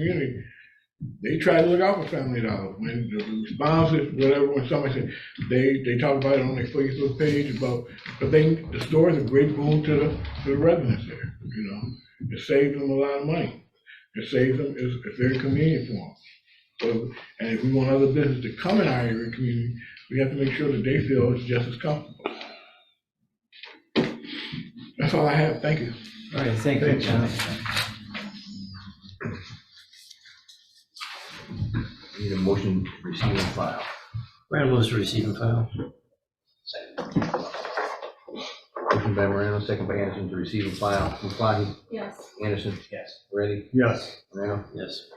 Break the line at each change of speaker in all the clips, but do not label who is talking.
community, they try to look out for Family Dollar. When the responses, whatever, when somebody said, they, they talk about it on their Facebook page about, but they, the store is a great boon to the, to the residents there, you know? It saves them a lot of money. It saves them, it's, it's very convenient for them. So, and if we want other business to come in our area and community, we have to make sure that they feel it's just as comfortable. That's all I have. Thank you.
All right, thank you,
Thanks,
John.
Need a motion, to receive and file.
Random moves to receive and file.
Motion by Morano, second by Anderson to receive and file. Muflahi?
Yes,
Anderson?
Yes.
Ready?
Yes,
Morano?
Yes.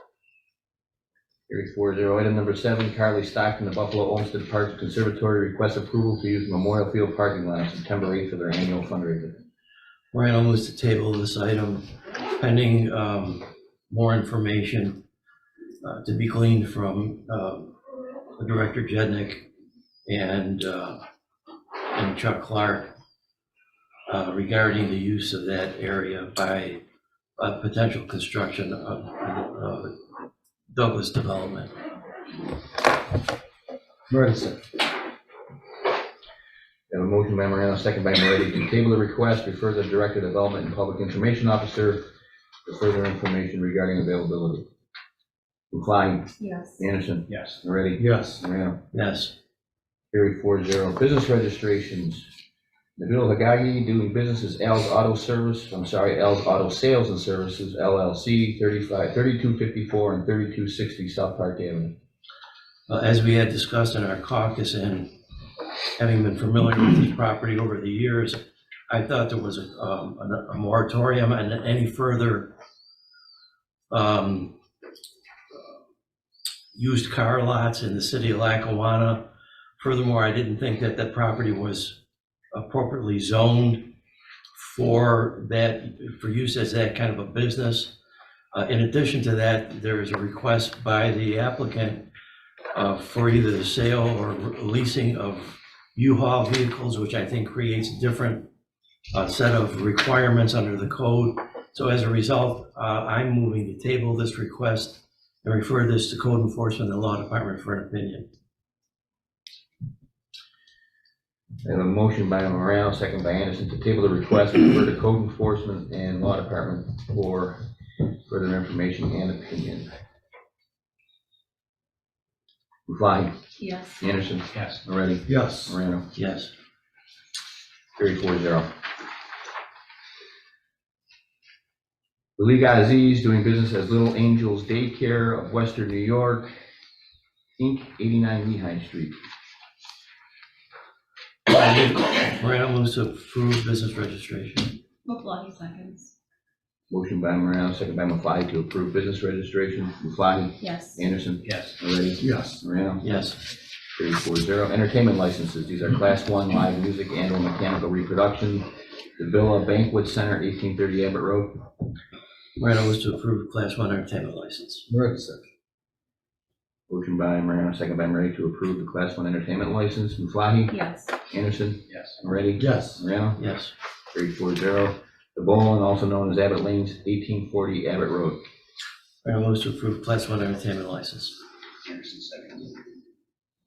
Carried four zero. Item number seven, Carly Stockton, the Buffalo Olmsted Parks Conservatory requests approval to use Memorial Field parking lot on September 8th for their annual fundraiser.
Random moves to table this item pending um, more information uh, to be gleaned from um, Director Jednick and uh, and Chuck Clark uh, regarding the use of that area by uh, potential construction of of Douglas Development.
Morrison. Have a motion by Morano, second by Moretti to table the request, refer to the Director of Development and Public Information Officer for further information regarding availability. Muflahi?
yes,
Anderson?
Yes.
Moretti?
yes,
Morano?
Yes.
Carried four zero. Business registrations. Nabil Hagagi doing business as Al's Auto Service, I'm sorry, Al's Auto Sales and Services LLC, 35, 3254 and 3260 South Park Avenue.
Uh, As we had discussed in our caucus and having been familiar with this property over the years, I thought there was a, um, a- a moratorium on any further um, used car lots in the city of Lackawanna. Furthermore, I didn't think that that property was appropriately zoned for that, for use as that kind of a business. Uh, In addition to that, there is a request by the applicant uh, for either the sale or leasing of U-Haul vehicles, which I think creates a different uh, set of requirements under the code. So as a result, uh, I'm moving to table this request and refer this to Code Enforcement and Law Department for an opinion.
I have a motion by Morano, second by Anderson, to table the request and refer to Code Enforcement and Law Department for further information and opinion. Muflahi?
yes,
Anderson?
Yes.
Moretti?
yes,
Morano?
Yes.
Carried four zero. The League Aziz doing business as Little Angels Daycare of Western New York, Inc., 89 Lehigh Street.
Morano moves to approve business registration.
Maflahe seconds,
Motion by Morano, second by Muflahi to approve business registration. Muflahi,
yes,
Anderson,
Yes.
Moretti,
yes,
Morano,
Yes.
carried four zero. Entertainment licenses, these are class one live music and or mechanical reproduction. The Villa Banquet Center, 1830 Abbott Road.
Morano moves to approve Class 1 entertainment license.
Moretti. Motion by Morano, second by Moretti to approve the Class 1 entertainment license. Muflahi,
yes,
Anderson,
Yes.
Moretti,
yes,
Morano,
Yes.
carried four zero. The Bowlin, also known as Abbott Lanes, 1840 Abbott Road.
Morano moves to approve Class 1 entertainment license.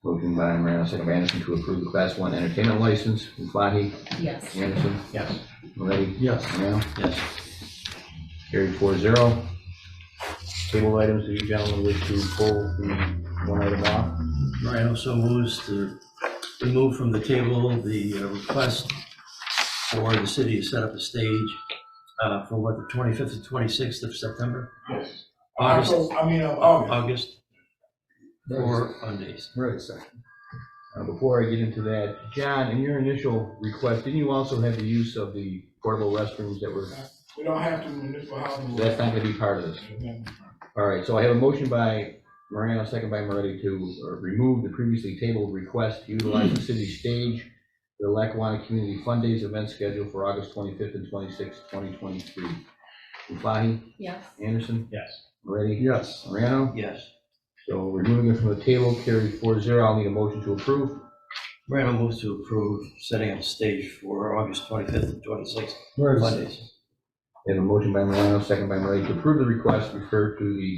Motion by Morano, second by Anderson to approve the Class 1 entertainment license. Muflahi,
yes,
Anderson,
Yes.
Moretti,
yes.
Morano,
Yes.
carried four zero. Table items, do you gentlemen wish to pull the one item off?
Ryan also moves to remove from the table the uh, request for the city to set up a stage uh, for what, the 25th and 26th of September?
Yes.
August,
I mean, uh, August.
August,
Or-
for Mondays.
Moretti,
Uh, Before I get into that, John, in your initial request, didn't you also have the use of the portable restrooms that were,
We don't have to municipal housing.
that's not gonna be part of this? All right, so I have a motion by Morano, second by Moretti to uh, remove the previously tabled request to utilize the city stage for the Lackawanna Community Fund Days event scheduled for August twenty-fifth and twenty-sixth, twenty twenty-three. Muflahi,
yes,
Anderson,
Yes.
Moretti,
yes,
Morano,
Yes.
so removing it from the table, carried four zero, I'll need a motion to approve.
Random moves to approve setting up a stage for August 25th and 26th,
Moretti.
Mondays.
I have a motion by Morano, second by Moretti to approve the request, refer to the